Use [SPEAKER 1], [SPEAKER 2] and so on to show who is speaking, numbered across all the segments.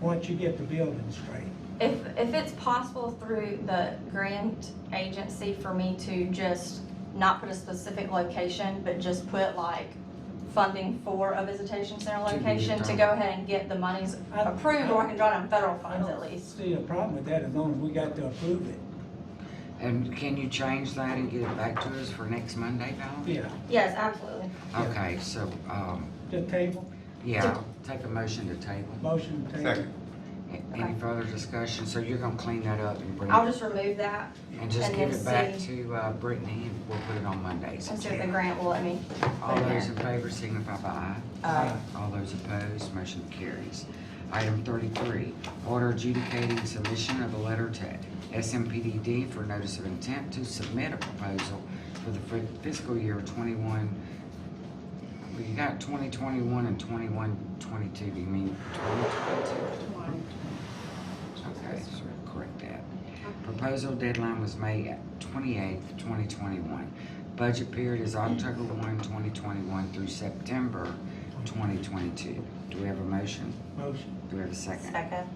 [SPEAKER 1] once you get the building straight.
[SPEAKER 2] If, if it's possible through the grant agency for me to just not put a specific location, but just put like funding for a visitation center
[SPEAKER 3] To be
[SPEAKER 2] location to
[SPEAKER 3] determined.
[SPEAKER 2] go ahead and get the monies
[SPEAKER 1] I-
[SPEAKER 2] approved or I can draw down federal
[SPEAKER 1] I
[SPEAKER 2] funds at
[SPEAKER 1] don't
[SPEAKER 2] least.
[SPEAKER 1] see a problem with that as long as we got to approve it.
[SPEAKER 3] And can you change that and get it back to us for next Monday, Val?
[SPEAKER 1] Yeah,
[SPEAKER 2] Yes, absolutely.
[SPEAKER 3] Okay, so, um,
[SPEAKER 1] the table,
[SPEAKER 3] yeah, take a motion to table.
[SPEAKER 1] motion to table.
[SPEAKER 4] Second.
[SPEAKER 3] A- Any further discussion? So you're gonna clean that up and bring
[SPEAKER 2] I'll
[SPEAKER 3] it,
[SPEAKER 2] just remove that
[SPEAKER 3] and just
[SPEAKER 2] and
[SPEAKER 3] give
[SPEAKER 2] then
[SPEAKER 3] it back
[SPEAKER 2] see.
[SPEAKER 3] to, uh, Brittany and we'll put it on Monday.
[SPEAKER 2] and see if the grant will let me.
[SPEAKER 3] All
[SPEAKER 2] put it
[SPEAKER 3] those
[SPEAKER 2] in.
[SPEAKER 3] in favor signify by aye.
[SPEAKER 2] Uh,
[SPEAKER 3] All those opposed, motion carries. Item thirty-three, order adjudicating submission of a letter to SMPDD for notice of intent to submit a proposal for the fi- fiscal year twenty-one. We got twenty twenty-one and twenty-one twenty-two, do you mean twenty twenty-two? Okay, so correct that. Proposal deadline was May twenty-eighth, twenty twenty-one. Budget period is October 1, 2021, through September twenty twenty-two. Do we have a motion?
[SPEAKER 1] Motion.
[SPEAKER 3] Do we have a second?
[SPEAKER 2] Second.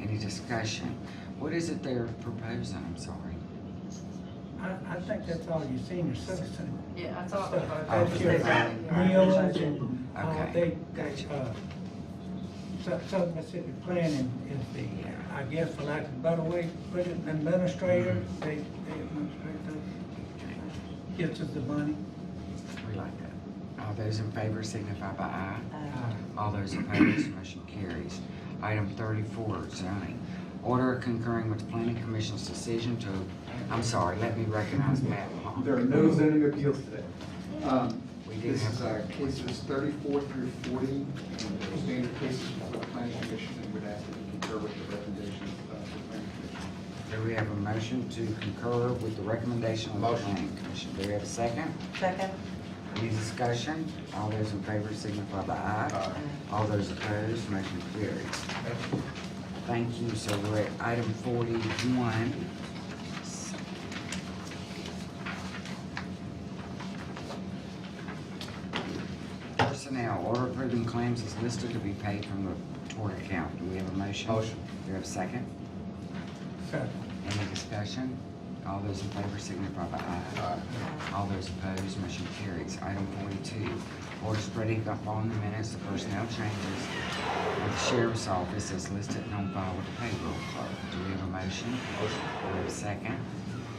[SPEAKER 3] Any discussion? What is it they're proposing? I'm sorry.
[SPEAKER 1] I, I think that's all your senior citizen.
[SPEAKER 5] Yeah, I
[SPEAKER 1] stuff.
[SPEAKER 5] thought.
[SPEAKER 1] That's your meals and, uh, they,
[SPEAKER 3] Okay,
[SPEAKER 1] they,
[SPEAKER 3] gotcha.
[SPEAKER 1] uh, Sou- Southern Mississippi Planning is the, I guess, for lack of a better way, to put it, administrator, they, they administrate the, gets us the money.
[SPEAKER 3] We like that. All those in favor signify by aye.
[SPEAKER 1] Uh,
[SPEAKER 3] All those opposed, motion carries. Item thirty-four, zoning. Order concurring with planning commission's decision to, I'm sorry, let me recognize Matt Long.
[SPEAKER 4] There are no zoning appeals today. Um,
[SPEAKER 3] We do
[SPEAKER 4] This
[SPEAKER 3] have-
[SPEAKER 4] is uh, cases thirty-four through forty, and the standard cases for the planning commission, and would ask that you concur with the recommendations of the planning commission.
[SPEAKER 3] Do we have a motion to concur with the recommendation of the
[SPEAKER 4] Motion.
[SPEAKER 3] planning commission? Do we have a second?
[SPEAKER 2] Second.
[SPEAKER 3] Any discussion? All those in favor signify by aye. All those opposed, motion carries. Thank you, so we're at item forty-one. Personnel, order approving claims is listed to be paid from the tort account. Do we have a motion?
[SPEAKER 4] Motion.
[SPEAKER 3] Do we have a second?
[SPEAKER 1] so,
[SPEAKER 3] Any discussion? All those in favor signify by aye. All those opposed, motion carries. Item forty-two, order spreading up on the minutes the personnel changes with the sheriff's office as listed and on file with the payroll clerk. Do we have a motion? Motion. Do we have a second?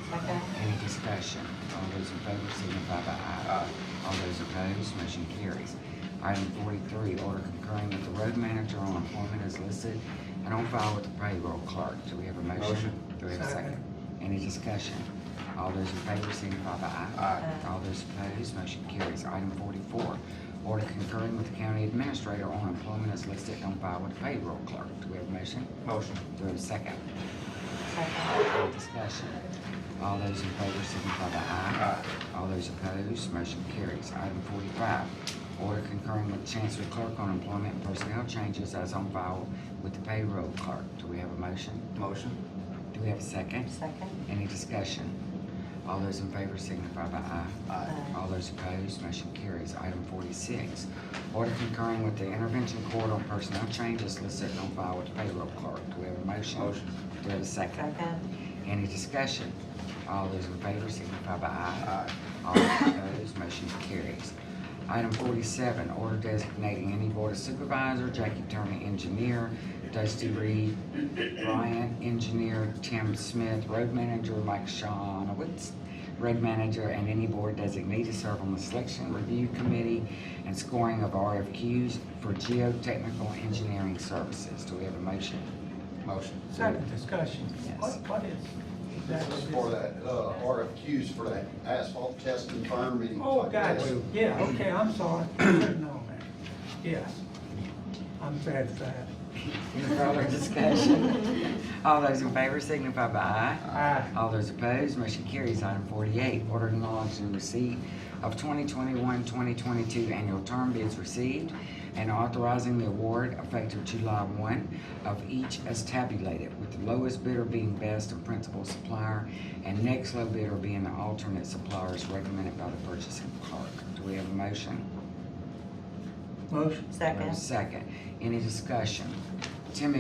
[SPEAKER 2] Second.
[SPEAKER 3] Any discussion? All those in favor signify by aye. All those opposed, motion carries. Item forty-three, order concurring with the road manager on employment as listed and on file with the payroll clerk. Do we have a motion?
[SPEAKER 4] Motion.
[SPEAKER 3] Do we have a second?
[SPEAKER 1] Second.
[SPEAKER 3] Any discussion? All those in favor signify by aye.
[SPEAKER 2] Aye.
[SPEAKER 3] All those opposed, motion carries. Item forty-four, order concurring with the county administrator on employment as listed and on file with the payroll clerk. Do we have a motion?
[SPEAKER 4] Motion.
[SPEAKER 3] Do we have a second?
[SPEAKER 2] Second.
[SPEAKER 3] Any discussion? All those in favor signify by aye. All those opposed, motion carries. Item forty-five, order concurring with Chancery Clerk on employment and personnel changes as on file with the payroll clerk. Do we have a motion?
[SPEAKER 4] Motion.
[SPEAKER 3] Do we have a second?
[SPEAKER 2] Second.
[SPEAKER 3] Any discussion? All those in favor signify by aye. All those opposed, motion carries. Item forty-six, order concurring with the intervention court on personnel changes listed on file with the payroll clerk. Do we have a motion?
[SPEAKER 4] Motion.
[SPEAKER 3] Do we have a second?
[SPEAKER 2] Second.
[SPEAKER 3] Any discussion? All those in favor signify by aye. All those opposed, motion carries. Item forty-seven, order designating any board of supervisor, Jackie Turner, engineer, Dusty Reed, Brian, engineer, Tim Smith, road manager, Mike Shawnowitz, road manager, and any board designee to serve on the selection review committee and scoring of RFQs for geotechnical engineering services. Do we have a motion?
[SPEAKER 4] Motion.
[SPEAKER 1] second discussion.
[SPEAKER 3] Yes.
[SPEAKER 1] What, what is?
[SPEAKER 6] This is for that, uh, RFQs for that asphalt testing, fire meeting.
[SPEAKER 1] Oh, gotcha, yeah, okay, I'm sorry, couldn't know that, yes. I'm satisfied.
[SPEAKER 3] Any further discussion? All those in favor signify by aye.
[SPEAKER 1] Aye.
[SPEAKER 3] All those opposed, motion carries. Item forty-eight, order acknowledging receipt of 2021-2022 annual term bids received and authorizing the award effective July one of each as tabulated, with the lowest bidder being best and principal supplier and next low bidder being the alternate supplier as recommended by the purchasing clerk. Do we have a motion?
[SPEAKER 1] Motion,
[SPEAKER 3] We have a Second. Any discussion?